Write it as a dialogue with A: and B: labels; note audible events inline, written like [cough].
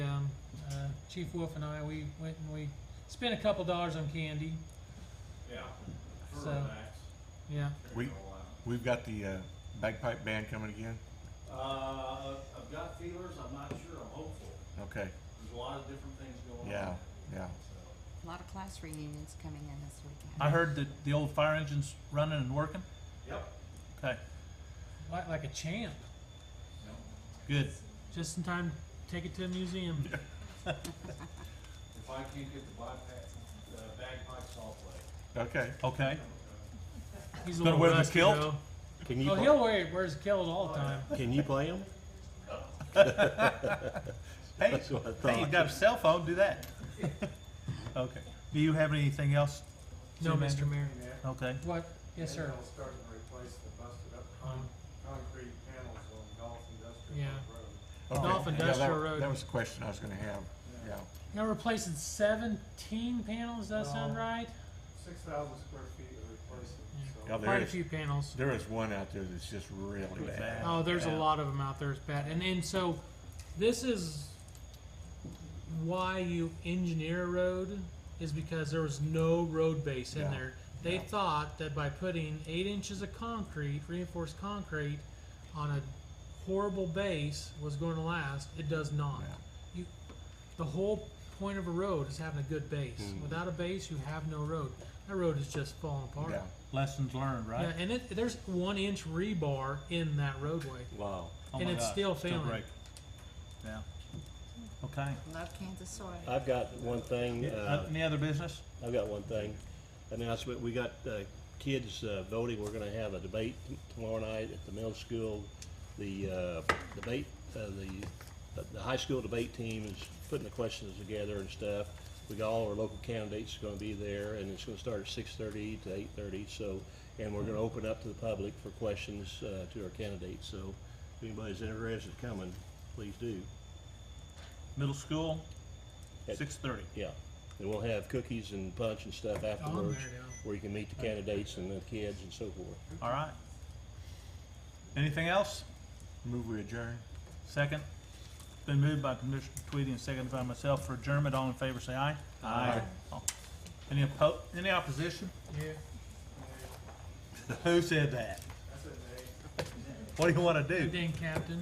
A: Um, Uh, Chief Wolf and I, we went and we spent a couple dollars on candy,
B: Yeah.
A: So- yeah.
C: We- We've got the uh, bagpipe band coming again.
B: Uh, I've got feelers, I'm not sure, I'm hopeful.
C: Okay.
B: There's a lot of different things going on.
C: Yeah. Yeah.
B: So,
D: A lot of class reunions coming in this weekend.
E: I heard that the old fire engine's running and working.
B: Yep.
E: Okay,
A: Like, like a champ,
B: Yep.
E: good.
A: just in time to take it to a museum.
B: If I can't get the bypass, the bagpipes, I'll play.
C: Okay.
E: Okay.
A: He's a
E: Gonna
A: little
E: wear the
A: rusty
E: kilt?
A: though.
F: Can you
A: Oh,
F: play,
A: he'll wear wears a kilt all the time.
F: can you
C: [laughs]
F: play them?
E: Hey,
F: That's what I
E: hey, you
F: thought.
E: got a cell phone, do that. Okay. Do you have anything else?
A: No,
E: City
A: Mr. Mayor.
E: Okay,
A: What? Yes, sir.
G: They'll start to replace the busted up
A: Um,
G: con- concrete panels on Golf Industrial
A: Yeah.
G: Road.
C: okay.
A: Golf
C: Yeah,
A: Industrial
C: that-
A: Road.
C: That was the question I was going to have. Yeah.
A: Now replacing seventeen panels. Does that sound
G: No.
A: right?
G: Six thousand square feet of replacement,
A: Yeah.
G: so.
C: Yeah, there
A: Quite a
C: is.
A: few panels.
C: There is one out there that's just really bad.
E: bad.
A: Oh, there's
E: Yeah.
A: a lot of them out there. It's bad. And and so, this is why you engineer a road is because there was no road base in
C: Yeah.
A: there. They
C: Yeah.
A: thought that by putting eight inches of concrete, reinforced concrete, on a horrible base was going to last. It does not.
C: Yeah.
A: You, the whole point of a road is having a good base.
C: Mm.
A: Without a base, you have no road. That road is just falling apart.
C: Yeah.
E: lessons learned,
A: Yeah,
E: right?
A: and it, there's one inch rebar in that roadway.
F: Wow.
E: Oh
A: and
E: my
A: it's
E: God,
A: still failing.
E: great. Yeah. Okay.
D: Love Kansas soil.
F: I've got one thing, uh,
E: Uh, Any other business?
F: I've got one thing. Announcement, we got, uh, kids, uh, voting. We're gonna have a debate t- tomorrow night at the middle school. The, uh, debate, uh, the, uh, the high school debate team is putting the questions together and stuff. We got all our local candidates gonna be there and it's gonna start at six thirty to eight thirty, so, and we're gonna open up to the public for questions, uh, to our candidates, so if anybody's interested in coming, please do.
E: Middle school,
F: At-
E: six thirty.
F: Yeah, and we'll have cookies and punch and stuff
A: Oh, there
F: afterwards,
A: you go.
F: where you can meet the candidates and the kids and so forth.
E: All right. Anything else?
C: Move we adjourn.
E: Second. It's Been moved by Commissioner Tweedy and seconded by myself for adjournment. All in favor, say aye. Aye. Oh. Any oppo, any opposition?
A: Yeah.
E: Who said that?
G: That's a name.
E: What do you wanna do?
A: Good day, Captain.